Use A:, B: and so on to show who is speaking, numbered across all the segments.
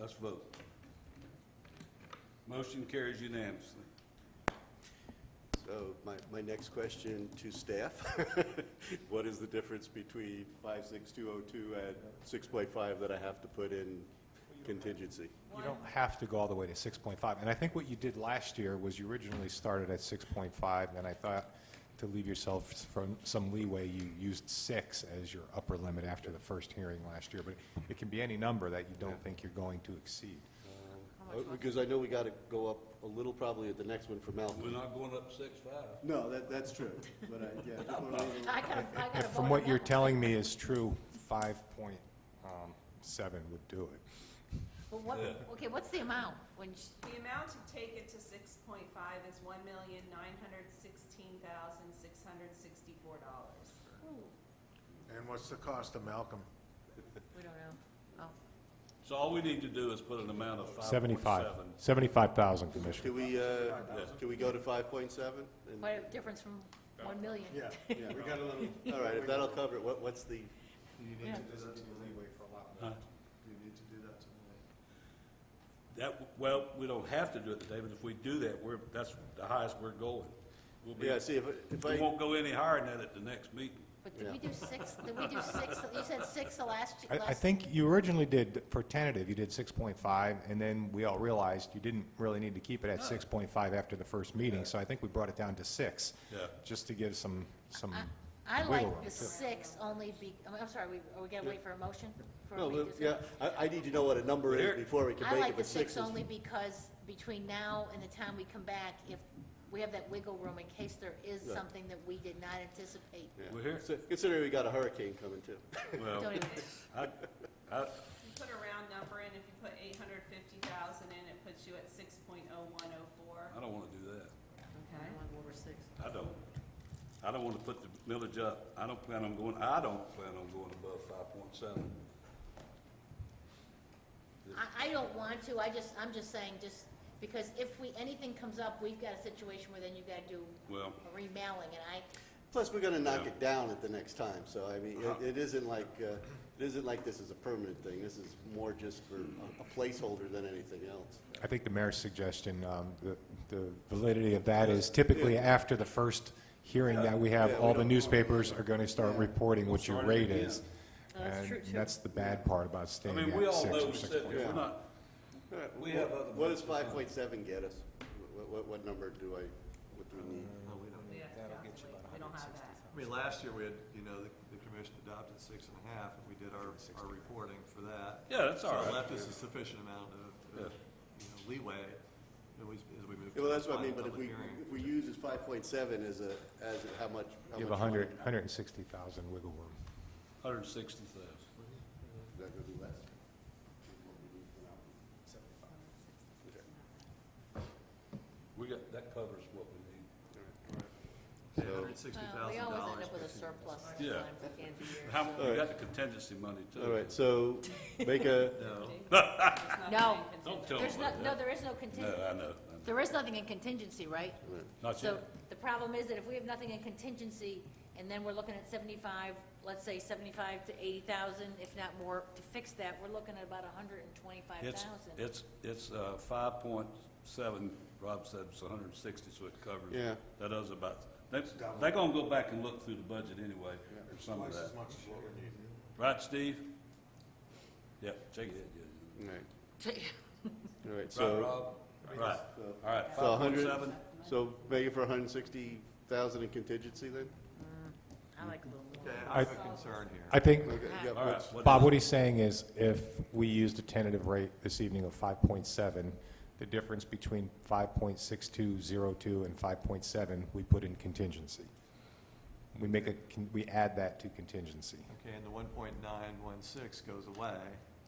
A: Let's vote. Motion carries unanimously.
B: So my, my next question to staff, what is the difference between 56202 and 6.5 that I have to put in contingency?
C: You don't have to go all the way to 6.5. And I think what you did last year was you originally started at 6.5, and I thought to leave yourself from some leeway, you used 6 as your upper limit after the first hearing last year. But it can be any number that you don't think you're going to exceed.
B: Uh, Because I know we got to go up a little probably at the next one for Malcolm.
A: We're not going up six-five.
B: No, that, that's true, but I, yeah. just wanna leave it-
D: I got, I got a
C: If
D: vote
C: from
D: on
C: what you're
D: that one.
C: telling me is true, 5.7 would do it.
D: Well, what, okay, what's the amount when sh
E: The amount to take it to six point five is one million nine hundred sixteen thousand six hundred sixty-four dollars.
F: And what's the cost of Malcolm?
D: we don't know. Oh,
A: So all we need to do is put an amount of five point seven.
C: 75, 75,000, Commissioner.
B: Can we, uh, can we go to 5.7? And-
D: quite a difference from one million.
F: yeah, we got a little.
B: All right, if that'll cover it, what, what's the,
F: You
D: Yeah.
F: do that to the leeway for a lot
A: Huh?
F: You need to do that to the
A: That, well, we don't have to do it today, but if we do that, we're, that's the highest we're going. We'll be,
B: yeah, see, if, if
A: we
B: I,
A: won't go any higher than that at the next meeting.
D: But did we do six, did we do six, you said six the last,
C: I, I
D: last,
C: think you originally did, for tentative, you did six point five, and then we all realized you didn't really need to keep it at six point five after the first meeting, so I think we brought it down to six.
A: Yeah.
C: Just to give some, some,
D: I- I
C: wiggle
D: like
C: room,
D: the
C: too.
D: six only be, I'm- I'm sorry, we, are we gonna wait for a motion? for
B: no,
D: we
B: well,
D: do six?
B: yeah, I, I need to know what a number
A: Here.
B: is before we can
D: I
B: make
D: like
B: it,
D: the
B: but six
D: six
B: is.
D: only because between now and the time we come back, if we have that wiggle room in case there is
B: Yeah.
D: something that we did not anticipate.
B: yeah.
A: We're here.
B: So Considering we got a hurricane coming too.
A: Well,
D: Don't even,
A: I, I,
E: You put a round number in, if you put eight hundred fifty thousand in, it puts you at six point oh one oh four.
A: I don't wanna do that.
E: Okay.
A: I don't. I don't want to put the millage up. I don't plan on going, I don't plan on going above five point seven.
D: I, I don't want to, I just, I'm just saying, just, because if we, anything comes up, we've got a situation where then you've gotta do
A: Well,
D: a remailing, and I,
B: Plus, we're gonna knock
A: Yeah.
B: it down at the next time, so I mean, it- it isn't like, uh, it isn't like this is a permanent thing. This is more just for a- a placeholder than anything else.
C: I think the mayor's suggestion, um, the, the validity of that is typically after the first hearing that we
B: Yeah,
C: have,
B: we
C: all the
B: don't-
C: newspapers are gonna start reporting what your
A: Starting
C: rate
A: again.
C: is. And that's the bad part about
A: I
C: staying
A: mean, we
C: at
A: all
C: six
A: know
C: or
A: we
C: six
A: said,
C: point
A: we're
C: five.
A: not, we have other.
B: What does five point seven get us? What, what, what number do I, what do we need?
G: Uh,
E: That'll get you about
G: I mean, last year, we had, you know, the the commission adopted six and a half, and we did our, our reporting for that.
A: Yeah, that's all
G: So
A: right.
G: it left us a sufficient amount of, of, you know, leeway as we, as we move.
B: Yeah, Well, that's what I mean, but
G: to the
B: if we,
G: final public hearing.
B: if we use as five point seven as a, as a- how much? how
C: You have
B: much
C: hundred,
B: money-
C: hundred and sixty thousand wiggle room.
A: Hundred and sixty thousand.
B: Is that gonna be less?
A: We got, that covers what we need.
G: Yeah, $160,000
D: Uh, we always end up with a surplus
A: Yeah.
D: sometimes at the end of the year.
A: How, we
B: right.
A: got the contingency money too.
B: All right, so make a,
D: No.
A: Don't tell them
D: There's no,
A: about
D: no,
A: that.
D: there is no
A: No,
D: contingency,
A: I know, I know.
D: there is nothing in contingency, right?
A: Not
D: So
A: yet.
D: the problem is that if we have nothing in contingency, and then we're looking at seventy-five, let's say seventy-five to eighty thousand, if not more, to fix that, we're looking at about hundred and twenty-five
A: It's,
D: thousand.
A: it's, it's, uh, five point seven, Rob said it's hundred and sixty, so it covers.
B: Yeah.
A: That does about, they, they're gonna go back and look through the budget anyway, or some of
F: Twice
A: that.
F: as much as what we need.
A: Right, Steve? Yep, shake it, yeah.
B: all right, all right,
A: Right,
B: so,
A: Rob? Right,
B: so-
F: uh,
A: all right,
B: so a
A: five point
B: hundred,
A: seven,
B: so make it for hundred and sixty thousand in contingency then?
D: I like a little more.
G: Okay, I have a concern here.
C: I think,
B: Okay, yeah,
A: all
B: what's-
A: right. what
C: Bob,
A: is-
C: what he's saying is if we used a tentative rate this evening of 5.7, the difference between 5.6202 and 5.7, we put in contingency. We make a, con- we add that to contingency.
G: Okay, and the one point nine one six goes away,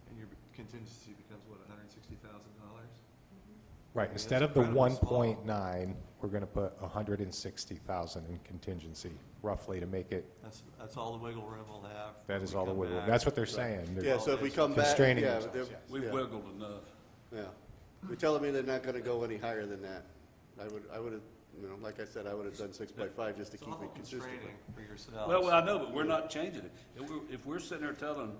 G: and your contingency becomes what, hundred and sixty thousand dollars?
C: Right,
G: Yeah,
C: instead
G: that's
C: of the
G: incredibly small.
C: 1.9, we're going to put 160,000 in contingency, roughly, to make it,
G: That's, that's all the wiggle room we'll have.
C: that
G: when
C: is
G: we
C: all the
G: come
C: wiggle room.
G: back.
C: That's what they're saying. They're-
B: Yeah, so if we come back, yeah,
C: Constraining
B: they're-
C: themselves, yes.
A: We've
B: yeah,
A: wiggled enough.
B: yeah. They're telling me they're not gonna go any higher than that. I would, I would've, you know, like I said, I would've done six by five just to
G: It's
B: keep
G: awful
B: it consistent.
G: constraining for yourselves.
A: Well, I know, but we're not changing it. If we're, if we're sitting there telling